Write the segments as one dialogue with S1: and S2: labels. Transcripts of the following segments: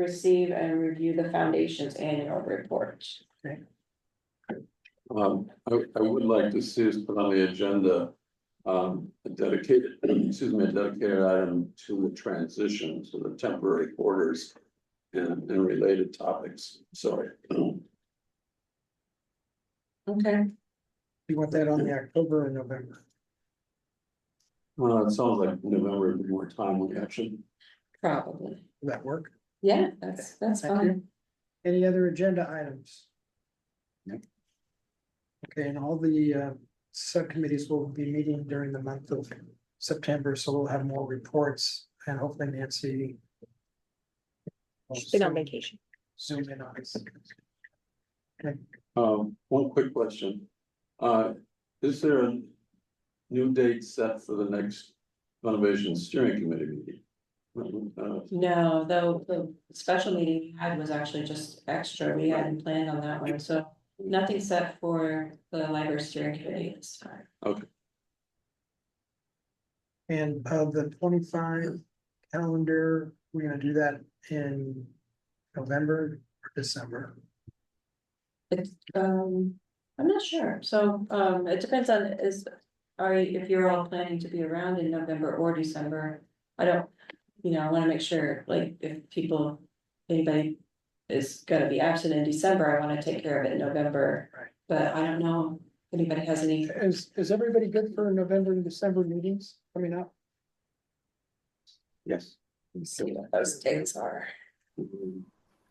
S1: receive and review the foundation's annual report.
S2: Um, I, I would like to see us put on the agenda, um, a dedicated, excuse me, a dedicated item to the transition to the temporary quarters and, and related topics, sorry. Uh,
S1: Okay.
S3: You want that on the October and November?
S2: Well, it sounds like November would be more timely action.
S1: Probably,
S3: Will that work?
S1: yeah, that's, that's
S3: Thank
S1: fine.
S3: Any other agenda items?
S2: Nope.
S3: Okay, and all the uh subcommittees will be meeting during the month of September, so we'll have more reports and hopefully Nancy. will
S4: She's been on
S3: zoom-
S4: vacation.
S3: Zoom in on us.
S2: Um, one quick question. Uh, is there a new date set for the next renovation steering committee meeting? Uh,
S1: No, though, the special meeting we had was actually just extra, we hadn't planned on that one, so nothing set for the library steering committee this time.
S3: And of the twenty-five calendar, we're gonna do that in November or December.
S1: Um, I'm not sure, so, um, it depends on is, are you, if you're all planning to be around in November or December. I don't, you know, I wanna make sure, like, if people, anybody is gonna be absent in December, I wanna take care of it in November.
S3: Right.
S1: But I don't know if anybody has any,
S3: Is is everybody good for November and December meetings coming up?
S2: Yes.
S1: let's see what those dates are.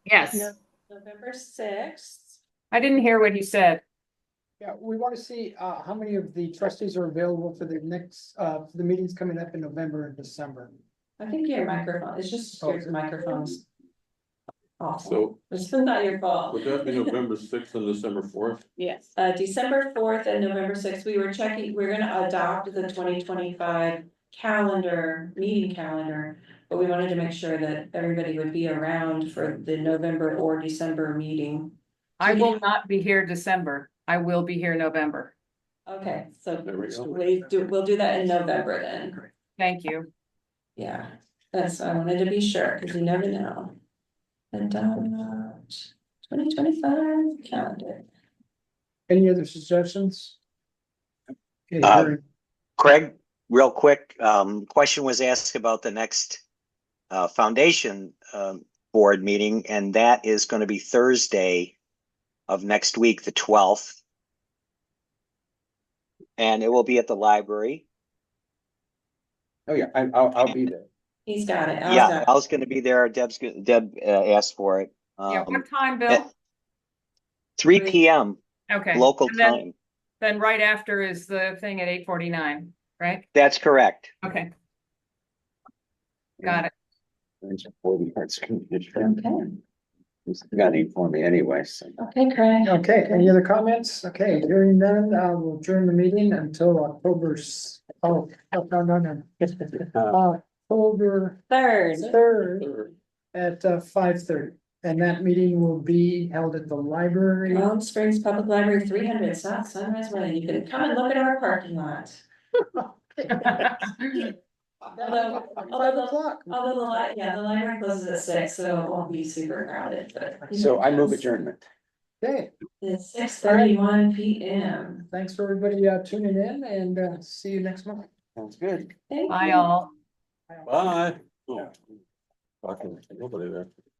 S5: Yes,
S4: No.
S1: November sixth.
S5: I didn't hear what you said.
S3: Yeah, we want to see uh how many of the trustees are available for the next uh for the meetings coming up in November and December.
S1: I think your microphone, it's just your microphones. Awesome,
S2: So
S1: it's not your fault.
S2: would that be November sixth and December fourth?
S4: Yes.
S1: Uh, December fourth and November sixth, we were checking, we're gonna adopt the twenty twenty-five calendar, meeting calendar. But we wanted to make sure that everybody would be around for the November or December meeting.
S5: I will not be here December. I will be here November.
S1: Okay, so
S2: There we go.
S1: we do, we'll do that in November then,
S5: Thank you.
S1: yeah. That's, I wanted to be sure, cause you never know. Adopt twenty twenty-five calendar.
S3: Any other suggestions? Okay,
S6: Uh,
S3: very-
S6: Craig, real quick, um, question was asked about the next uh, foundation um, board meeting, and that is going to be Thursday of next week, the twelfth. And it will be at the library.
S7: Oh, yeah, I, I'll, I'll be there.
S1: He's got it. I'll
S6: Yeah,
S1: stop.
S6: I was going to be there. Deb's, go- Deb uh, asked for it.
S5: Yeah,
S6: Um,
S5: what time, Bill?
S6: Three PM
S5: Okay.
S6: local
S5: And then-
S6: time.
S5: Then right after is the thing at eight forty-nine, right?
S6: That's correct.
S5: Okay. Got it.
S7: It's for the arts commission.
S1: Okay,
S7: He's got it for me anyway, so.
S1: okay, Craig.
S3: Okay, any other comments? Okay, hearing none, uh we'll adjourn the meeting until October. s- Oh, no, no, no, no. Uh, October
S1: Third.
S3: third at uh five thirty. And that meeting will be held at the library.
S1: Palm Springs Public Library, three hundred South Sunrise Way, you can come and look at our parking lot. Although,
S3: Five
S1: although,
S3: o'clock.
S1: the- although the li- yeah, the library closes at six, so it won't be super crowded, but.
S7: So I move adjournment.
S3: Okay,
S1: It's six thirty-one P M.
S3: thanks for everybody uh tuning in and uh see you next month.
S7: Sounds good.
S1: Thank you.
S5: Bye all.
S2: Bye. Oh, Fucking nobody there.